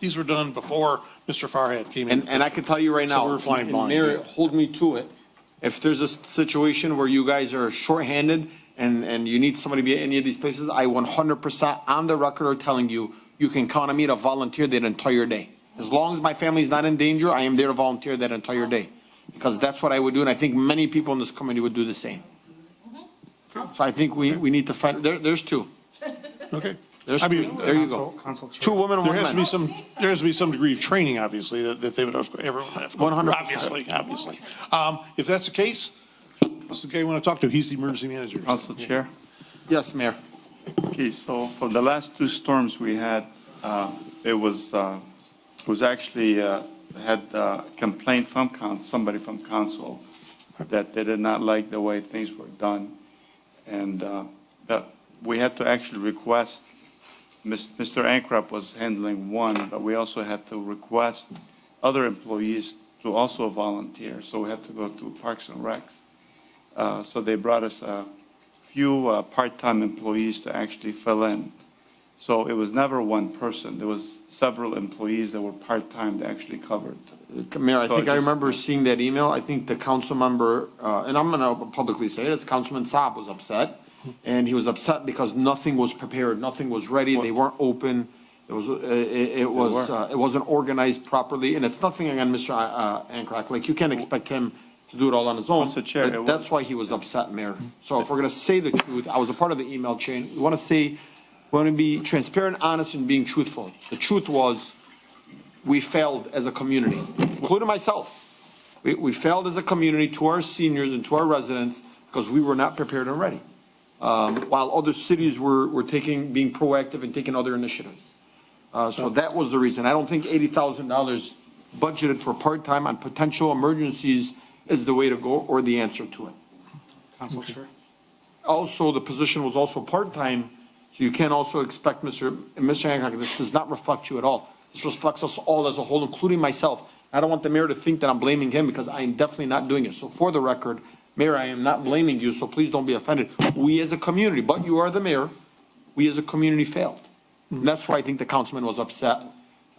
These were done before Mr. Farhat came in. And, and I can tell you right So now. we're flying and blind Mayor, here. hold me to it. If there's a situation where you guys are shorthanded and, and you need somebody to be at any of these places, I one hundred percent on the record are telling you, you can count on me to volunteer that entire day. As long as my family's not in danger, I am there to volunteer that entire day. Because that's what I would do, and I think many people in this community would do the same. Mm-hmm. So I think we, we need to find, there, there's two. Okay. There's I mean, two. There you go. Council Chair. Two women, There one has to be man. some, there has to be some degree of training, obviously, that, that they would, have- everyone would have to go through, 100%. obviously, obviously. Um, if that's the case, this is the guy you want to talk to. He's the emergency manager. Council Chair. Yes, Mayor. Okay, so for the last two storms we had, uh, it was, uh, it was actually, uh, had uh, complaint from coun, somebody from council that they did not like the way things were done. And uh, that, we had to actually request, Mis- Mr. Ankrup was handling one, but we also had to request other employees to also volunteer, so we had to go to Parks and Recs. Uh, So they brought us a few uh, part-time employees to actually fill in. So it was never one person. There was several employees that were part-time that actually covered. Mayor, I So think I I just- remember seeing that email. I think the council member, uh, and I'm gonna publicly say it, it's Councilman Saab was upset. And he was upset because nothing was prepared, nothing was ready, they weren't open. It was, uh, it, it was, uh, it wasn't organized properly, and it's nothing against Mr. uh, Ankrak. Like, you can't expect him to do it all on his own. Mr. Chair, but it That's was- why he was upset, Mayor. So if we're gonna say the truth, I was a part of the email chain. We wanna say, we wanna be transparent, honest, and being truthful. The truth was, we failed as a community, including myself. We, we failed as a community to our seniors and to our residents because we were not prepared and ready. Um, while other cities were, were taking, being proactive and taking other initiatives. Uh, so that was the reason. I don't think eighty thousand dollars budgeted for part-time on potential emergencies is the way to go or the answer to it. Council Chair. Also, the position was also part-time, so you can't also expect, Mr. and Mr. Hancock, this does not reflect you at all. This reflects us all as a whole, including myself. I don't want the mayor to think that I'm blaming him because I am definitely not doing it. So for the record, Mayor, I am not blaming you, so please don't be offended. We as a community, but you are the mayor, we as a community failed. And that's why I think the councilman was upset,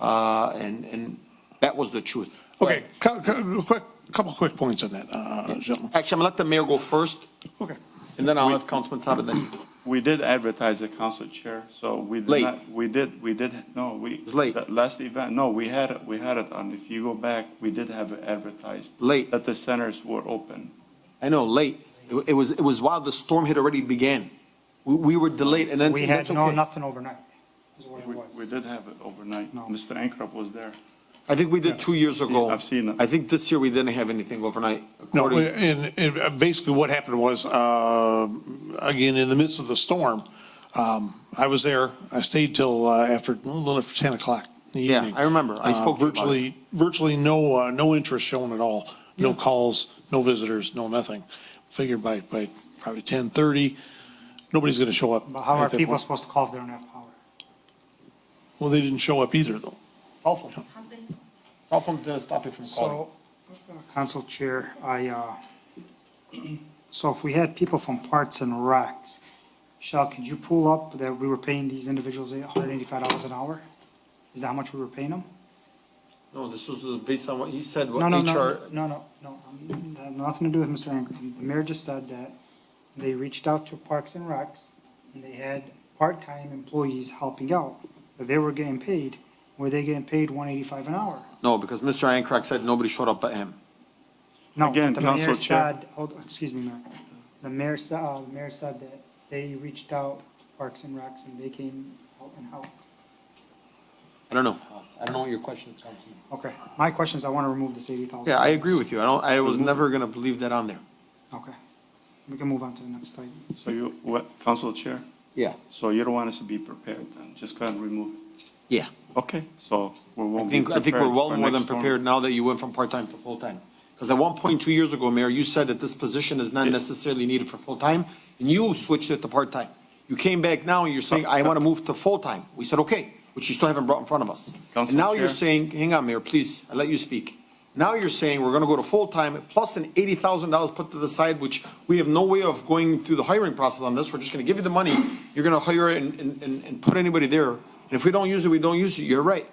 uh, and, and that was the truth. Okay, cou- cou- quick, couple of quick points on that, uh, gentlemen. Actually, I'm gonna let the mayor go first, Okay. and then I'll have Councilman Saab and then you. We did advertise the council chair, so we did Late. not, we did, we did, no, we. It was late. Last event, no, we had, it. we had it on, if you go back, we did have it advertised. Late. That the centers were open. I know, late. It wa- It was, it was while the storm had already began. We, we were delayed and then. We that's had no, okay. nothing overnight, is what it We, we was. did have it overnight. No. Mr. Ankrup was there. I think we did two years ago. I've seen it. I think this year we didn't have anything overnight. No, according- and, and basically what happened was, uh, again, in the midst of the storm, um, I was there, I stayed till, uh, after, a little after 10 o'clock in the Yeah, evening. I remember. I Uh, spoke to you about it. Virtually, virtually no, uh, no interest shown at all. No calls, no visitors, no nothing. Figured by, by probably 10:30, nobody's going to show up. But how are at that people point. supposed to call if they don't have power? Well, they didn't show up either, though. Cell phone. Cell phone didn't stop you from calling. So, uh, Council Chair, I, uh, so if we had people from Parts and Recs, Shell, could you pull up that we were paying these individuals $185 an hour? Is that how much we were paying them? No, this was uh, based on what he said, what No, no, HR. no, no, no, no, um, that had nothing to do with Mr. Angren. The mayor just said that they reached out to Parks and Recs, and they had part-time employees helping out, but they were getting paid, were they getting paid one eighty-five an hour? No, because Mr. Ankrak said nobody showed up but him. No, Again, the mayor Council Chair. said- Hold, excuse me, Mayor. The mayor said, uh, the mayor said that they reached out Parks and Recs and they came out and helped. I don't know. I don't know what your question is, Councilman. Okay, my question is, I want to remove this eighty thousand. Yeah, I agree with you. I don't, I was never gonna believe that on there. Okay, we can move on to the next item. So you, what, council chair? Yeah. So you don't want us to be prepared then? Just go ahead and remove it. Yeah. Okay, so we I won't be think, I think we're prepared well for more next than storm. prepared now that you went from part-time to full-time. Because at one point, two years ago, Mayor, you said that this position is not Yeah. necessarily needed for full-time, and you switched it to part-time. You came back now and you're saying, I want to move to full-time. We said, okay, which you still haven't brought in front of us. And Council now you're Chair. saying, hang on, Mayor, please, I let you speak. Now you're saying we're going to go to full-time, plus an eighty thousand dollars put to the side, which we have no way of going through the hiring process on this. We're just going to give you the money. You're going to hire and, and, and- and put anybody there. And if we don't use it, we don't use it. You're right.